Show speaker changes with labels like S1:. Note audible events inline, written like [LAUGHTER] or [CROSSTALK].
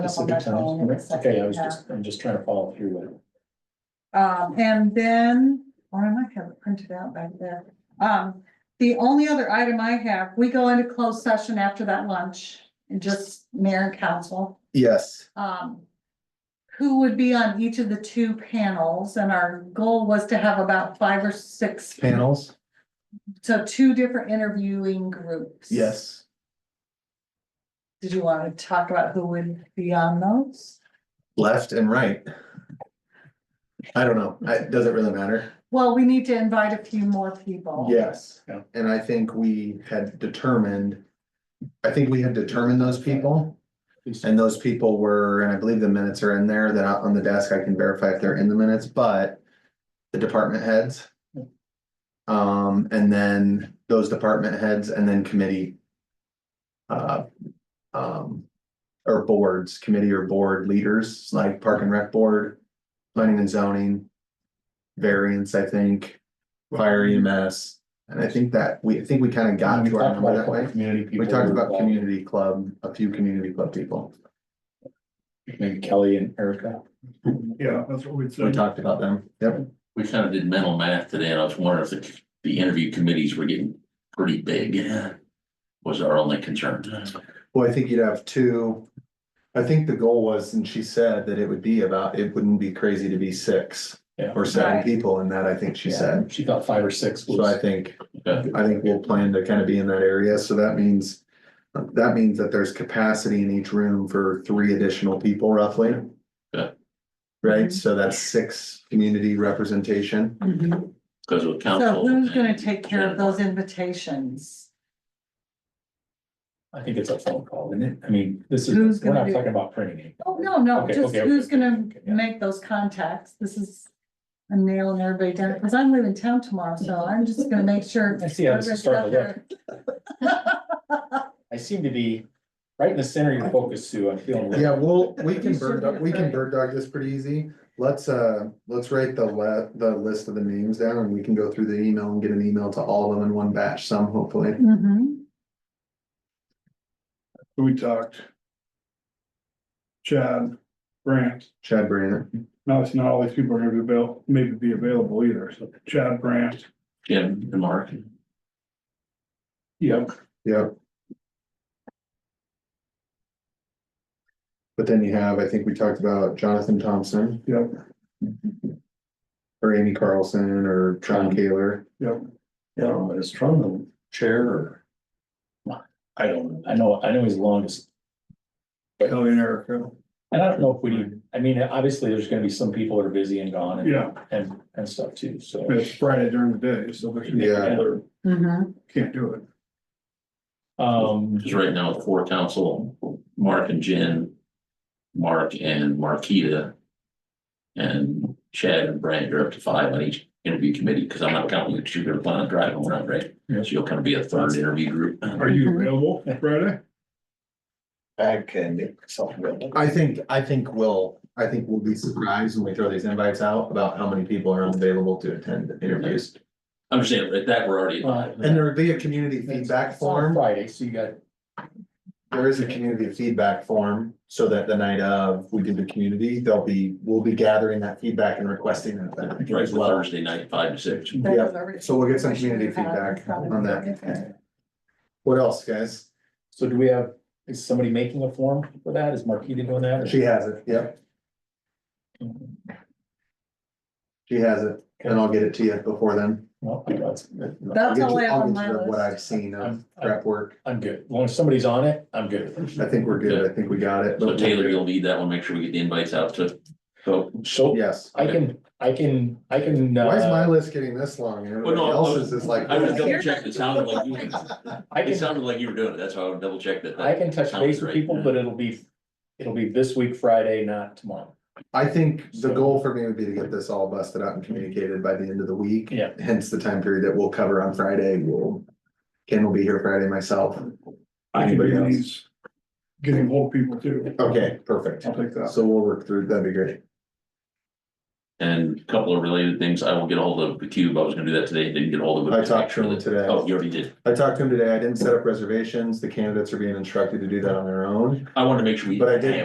S1: That's a
S2: on
S1: good
S2: my
S1: time.
S2: phone in a second,
S1: Okay, I was
S2: yeah.
S1: just, I'm just trying to follow through with it.
S2: Um, and then, or I might have it printed out back there. Um, the only other item I have, we go into closed session after that lunch and just mayor and council.
S3: Yes,
S2: Um, who would be on each of the two panels and our goal was to have about five or six.
S3: panels,
S2: So two different interviewing groups.
S3: yes.
S2: Did you want to talk about who would be on those?
S3: Left and right. I don't know. I- It doesn't really matter.
S2: Well, we need to invite a few more people.
S3: Yes.
S1: Yeah.
S3: And I think we had determined, I think we had determined those people. And those people were, and I believe the minutes are in there, that on the desk, I can verify if they're in the minutes, but the department heads. Um, and then those department heads and then committee. Uh, um, or boards, committee or board leaders, like Park and Rec Board, Planning and Zoning. Variance, I think, Fire EMS, and I think that, we, I think we kind of got
S1: We
S3: to our
S1: talked
S3: number
S1: about a
S3: that
S1: couple
S3: way.
S1: community people.
S3: We talked about
S1: were
S3: community club, a few community club people.
S1: involved. Maybe Kelly and Erica.
S4: Yeah, that's what we'd
S3: We
S4: say.
S3: talked about them. Yep.
S5: We kind of did mental math today, and I was wondering if the, the interview committees were getting pretty big. Was our only concern.
S3: Well, I think you'd have two. I think the goal was, and she said that it would be about, it wouldn't be crazy to be six
S1: Yeah.
S3: or seven
S2: Right.
S3: people in that, I think she
S1: Yeah,
S3: said.
S1: She thought five or six
S3: So I
S1: was,
S3: think,
S5: Okay.
S3: I think we'll plan to kind of be in that area. So that means, that means that there's capacity in each room for three additional people roughly.
S5: Yeah.
S3: Right? So that's six community representation.
S2: Mhm.
S5: Because with
S2: So
S5: council.
S2: who's gonna take care of those invitations?
S1: I think it's a phone call, isn't it? I mean, this
S2: Who's
S1: is, we're
S2: gonna
S1: not
S2: do-
S1: talking about printing it.
S2: Oh, no, no,
S1: Okay,
S2: just
S1: okay,
S2: who's
S1: okay,
S2: gonna
S1: okay, yeah.
S2: make those contacts? This is a nail in everybody down, because I'm leaving town tomorrow, so I'm just gonna make
S3: [LAUGHS]
S2: sure.
S1: I see how this is starting to look. I seem to be right in the center of your focus, Sue. I'm feeling. a little-
S3: Yeah, well, we can
S2: You should
S3: bird, dog-
S2: be
S3: we can
S2: afraid.
S3: bird dog this pretty easy. Let's, uh, let's write the le- the list of the names down and we can go through the email and get an email to all of them in one batch, some hopefully.
S2: Mhm.
S4: We talked. Chad, Brant,
S3: Chad Brandon,
S4: no, it's not all these people are gonna be available, maybe be available either, so Chad, Brant,
S5: Jim and Mark.
S4: yep,
S3: yep. But then you have, I think we talked about Jonathan Thompson
S4: yep,
S3: or Amy Carlson or John
S1: Um,
S3: Kaler.
S4: yep.
S1: I don't know, is Trump the chair or? I don't, know. I know, I know he's longest.
S4: Kelly and Erica,
S1: And I don't know if we need, I mean, obviously, there's gonna be some people that are busy and gone and,
S4: yeah,
S1: and, and stuff too, so.
S4: but it's Friday during the day, so there's.
S3: Yeah.
S2: Mhm.
S4: Can't do it,
S1: Um,
S5: Because right now, four council, Mark and Jen, Mark and Marquita. And Chad and Brand are up to five on each interview committee, because I'm not counting you, 'cause you're gonna plan on driving around, right?
S1: Yeah.
S5: So you'll kind of be a third interview group.
S4: are you available Friday?
S1: I can make myself available.
S3: I think, I think we'll, I think we'll be surprised when we throw these invites out about how many people are available to attend the interviews.
S5: I'm just saying, at that, we're already.
S3: Uh, And there'll be a community feedback form.
S1: Friday, so you got,
S3: There is a community feedback form, so that the night of we do the community, they'll be, we'll be gathering that feedback and requesting that back
S5: Right,
S3: as
S5: for
S3: well.
S5: Thursday night, five to six.
S2: That
S3: Yeah,
S2: is already-
S3: so we'll get some
S2: I should
S3: community
S2: have had
S3: feedback
S2: something.
S3: on that. What else, guys?
S1: so do we have, is somebody making a form for that? Is Marquita doing that?
S3: She has it, yep, she has it, and I'll get it to you before then.
S1: Well, that's,
S3: I'll
S2: That's
S3: get
S2: all I
S3: you-
S2: have
S3: I'll
S2: on
S3: get
S2: my
S3: you What
S2: list.
S3: I've seen of
S1: I'm- I'm-
S3: prep work,
S1: I'm good. As long as somebody's on it, I'm good.
S3: I think we're good, I think we got it.
S5: So Taylor, you'll need that one, make sure we get the invites out to folks.
S1: So
S3: Yes,
S1: I can, I can, I can,
S3: why is my
S1: uh,
S3: list getting this long, and
S5: Well,
S3: everybody
S5: no, I
S3: else's
S5: was-
S3: is like.
S5: I was double checking, it sounded like you,
S1: I
S5: it
S1: can,
S5: sounded like you were doing it, that's why I would double check that.
S1: I can touch base with people, but it'll be, it'll be this week, Friday, not tomorrow.
S3: I think the goal for me would be to get this all busted out and communicated by the end of the week.
S1: Yeah.
S3: Hence the time period that we'll cover on Friday. We'll, Ken will be here Friday myself.
S4: I can
S3: Anybody
S4: do
S3: else?
S4: these, getting hold of people too,
S3: Okay, perfect.
S4: I'll take that,
S3: So we'll work through, that'd be great.
S5: And a couple of related things, I will get hold of the cube, I was gonna do that today, didn't get hold of it.
S3: I talked to him today.
S5: Oh, you already did,
S3: I talked to him today. I didn't set up reservations. The candidates are being instructed to do that on their own.
S5: I wanted to make sure we.
S3: But I did